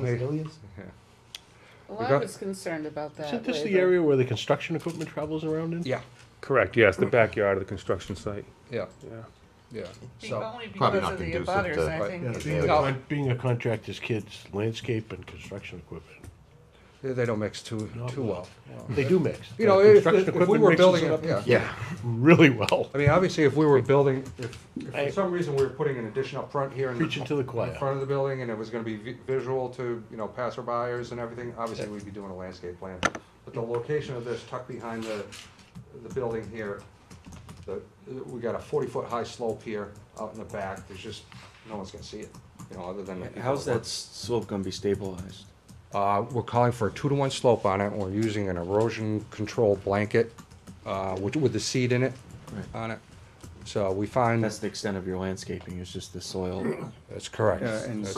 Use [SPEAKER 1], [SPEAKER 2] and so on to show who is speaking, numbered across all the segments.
[SPEAKER 1] Newport Hill is?
[SPEAKER 2] Well, I
[SPEAKER 3] got-
[SPEAKER 2] was concerned about that.
[SPEAKER 4] Isn't this the
[SPEAKER 2] waiver.
[SPEAKER 4] area where the construction equipment travels around in?
[SPEAKER 3] Yeah,
[SPEAKER 5] Correct, yes, the backyard of the construction site,
[SPEAKER 3] yeah,
[SPEAKER 5] yeah.
[SPEAKER 3] yeah,
[SPEAKER 2] Be-
[SPEAKER 3] so,
[SPEAKER 2] Only
[SPEAKER 1] Probably
[SPEAKER 2] because
[SPEAKER 1] not
[SPEAKER 2] of the
[SPEAKER 1] conducive
[SPEAKER 2] abutters,
[SPEAKER 1] to-
[SPEAKER 2] I
[SPEAKER 3] Right.
[SPEAKER 2] think.
[SPEAKER 4] Yeah,
[SPEAKER 2] it's-
[SPEAKER 4] being a
[SPEAKER 3] No.
[SPEAKER 4] con- Being a contractor's kid's landscape and construction equipment.
[SPEAKER 3] they they don't mix too,
[SPEAKER 4] No,
[SPEAKER 3] too well.
[SPEAKER 4] They do mix.
[SPEAKER 3] You know, if, if- if we were building, a- yeah.
[SPEAKER 1] Yeah,
[SPEAKER 4] Really well.
[SPEAKER 3] I mean, obviously, if we were building, if, if
[SPEAKER 4] I-
[SPEAKER 3] for some reason we were putting an addition up front here in the,
[SPEAKER 4] Preaching to the
[SPEAKER 3] in
[SPEAKER 4] choir.
[SPEAKER 3] front of the building, and it was gonna be vi- visual to, you know, passerbyers and everything, obviously, we'd be doing a landscape plan. But the location of this tucked behind the, the building here, the, we got a forty-foot high slope here out in the back, there's just, no one's gonna see it, you know, other than. the people
[SPEAKER 1] how's
[SPEAKER 3] work.
[SPEAKER 1] that slope gonna be stabilized?
[SPEAKER 3] Uh, we're calling for a two-to-one slope on it, and we're using an erosion control blanket, uh, with, with the seed in it,
[SPEAKER 1] Right.
[SPEAKER 3] on it. So we find.
[SPEAKER 1] That's the extent of your landscaping, it's just the soil. Uh,
[SPEAKER 3] That's correct.
[SPEAKER 6] Yeah, and
[SPEAKER 3] That's-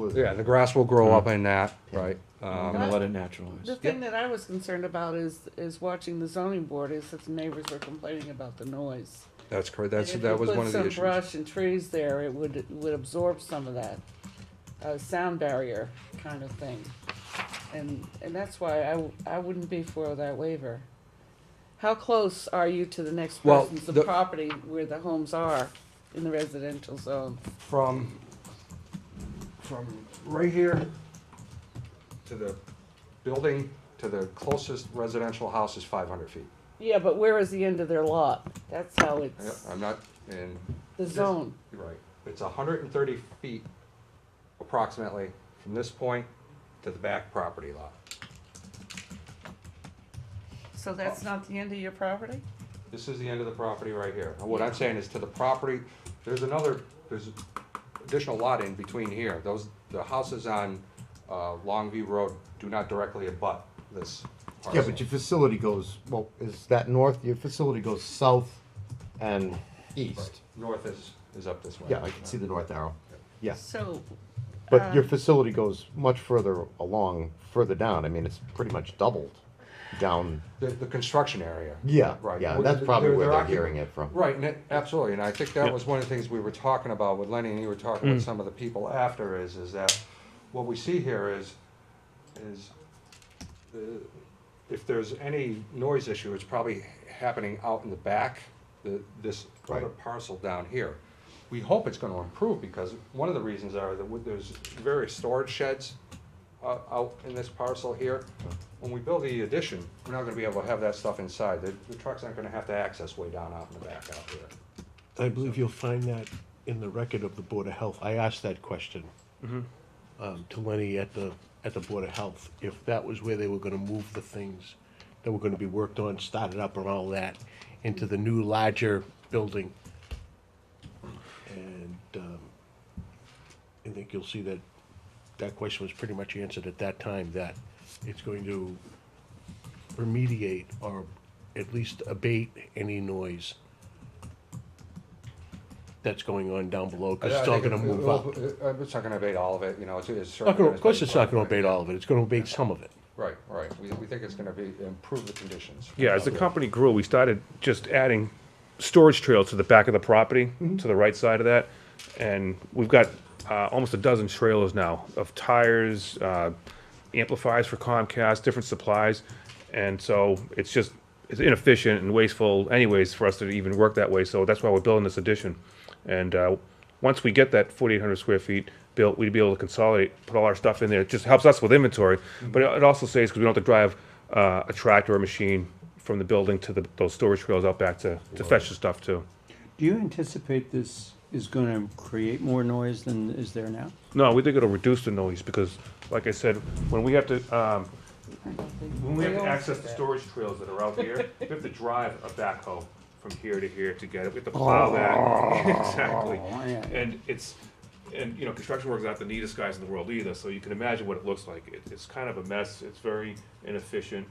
[SPEAKER 6] grass.
[SPEAKER 3] Yeah, the grass will grow up in that, right?
[SPEAKER 1] I'm
[SPEAKER 3] Um,
[SPEAKER 1] gonna let it naturalize.
[SPEAKER 2] The thing that I was concerned about is, is watching the zoning board is that the neighbors were complaining about the noise.
[SPEAKER 3] That's correct, that's,
[SPEAKER 2] And if
[SPEAKER 3] that
[SPEAKER 2] you
[SPEAKER 3] was
[SPEAKER 2] put
[SPEAKER 3] one of the
[SPEAKER 2] some
[SPEAKER 3] issues.
[SPEAKER 2] Brush and trees there, it would, it would absorb some of that, uh, sound barrier kind of thing. And, and that's why I, w- I wouldn't be for that waiver. How close are you to the next
[SPEAKER 3] Well,
[SPEAKER 2] person's
[SPEAKER 3] the-
[SPEAKER 2] property where the homes are in the residential zone?
[SPEAKER 3] From, from right here to the building, to the closest residential house is five hundred feet.
[SPEAKER 2] Yeah, but where is the end of their lot? That's how
[SPEAKER 3] Yeah,
[SPEAKER 2] it's,
[SPEAKER 3] I'm not, and,
[SPEAKER 2] the zone.
[SPEAKER 3] you're right, it's hundred and thirty feet approximately from this point to the back property lot.
[SPEAKER 2] So that's not the end of your property?
[SPEAKER 3] This is the end of the property right here. And what I'm saying is to the property, there's another, there's additional lot in between here. Those, the houses on, uh, Longview Road do not directly abut this
[SPEAKER 7] Yeah,
[SPEAKER 3] parcel.
[SPEAKER 7] but your facility goes, well, is that north? Your facility goes south and east.
[SPEAKER 3] North is, is up this way.
[SPEAKER 7] Yeah, I can see the north arrow. Yes,
[SPEAKER 2] So,
[SPEAKER 7] but your facility goes much further along, further down. I mean, it's pretty much doubled down.
[SPEAKER 3] The, the construction area.
[SPEAKER 7] Yeah,
[SPEAKER 3] Right.
[SPEAKER 7] yeah,
[SPEAKER 3] Well,
[SPEAKER 7] that's probably where they're
[SPEAKER 3] occup-
[SPEAKER 7] hearing it from.
[SPEAKER 3] Right, and it, absolutely, and I think that was one of the things we were talking about with Lenny, and you were talking with some of the people after, is, is that what we see here is, is uh, if there's any noise issue, it's probably happening out in the back, the, this other
[SPEAKER 7] Right.
[SPEAKER 3] parcel down here. We hope it's gonna improve, because one of the reasons are that w- there's various storage sheds uh, out in this parcel here. When we build the addition, we're not gonna be able to have that stuff inside. The, the trucks aren't gonna have to access way down out in the back out there.
[SPEAKER 4] I believe you'll find that in the record of the Board of Health. I asked that question um, to Lenny at the, at the Board of Health, if that was where they were gonna move the things that were gonna be worked on, started up and all that, into the new larger building. And um, I think you'll see that, that question was pretty much answered at that time, that it's going to remediate or at least abate any noise that's going on down below, because it's all gonna move up.
[SPEAKER 3] Uh, It's not gonna abate all of it, you know, it's, it's
[SPEAKER 4] Not
[SPEAKER 3] certainly.
[SPEAKER 4] gonna, of course, it's not gonna abate all of it, it's gonna abate some of it.
[SPEAKER 3] Right, right. We, we think it's gonna be, improve the conditions.
[SPEAKER 5] Yeah, as the company grew, we started just adding storage trails to the back of the property, to the right side of that. And we've got uh, almost a dozen trailers now of tires, uh, amplifiers for Comcast, different supplies. And so it's just, it's inefficient and wasteful anyways for us to even work that way. So that's why we're building this addition. And uh, once we get that 4,800 square feet built, we'd be able to consolidate, put all our stuff in there. It just helps us with inventory, but it it also saves because we don't have to drive uh, a tractor or a machine from the building to the, those storage trails out back to, to fetch the stuff too.
[SPEAKER 6] Do you anticipate this is gonna create more noise than is there now?
[SPEAKER 5] No, we think it'll reduce the noise because, like I said, when we have to, um, when we have to
[SPEAKER 2] Trails.
[SPEAKER 5] access the storage trails that are out here, we have to drive a backhoe from here to here to get it. We have to plow that. exactly.
[SPEAKER 6] Oh, yeah.
[SPEAKER 5] And it's, and you know, construction work is not the neatest guys in the world either, so you can imagine what it looks like. It, it's kind of a mess. It's very inefficient.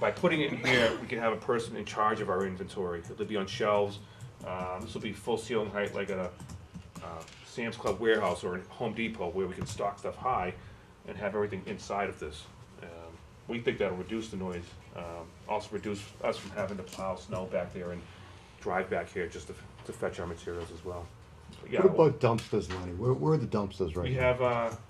[SPEAKER 5] By putting it in here, we can have a person in charge of our inventory. It'll be on shelves. Um, this will be full ceiling height, like at a uh, Sam's Club warehouse or a Home Depot, where we can stock stuff high and have everything inside of this. Um, we think that'll reduce the noise. Um, also reduce us from having to plow snow back there and drive back here just to, to fetch our materials as well. But yeah,
[SPEAKER 7] What about dumpsters, Lenny? Where, where are the dumpsters right
[SPEAKER 5] we
[SPEAKER 7] now?
[SPEAKER 5] have, uh,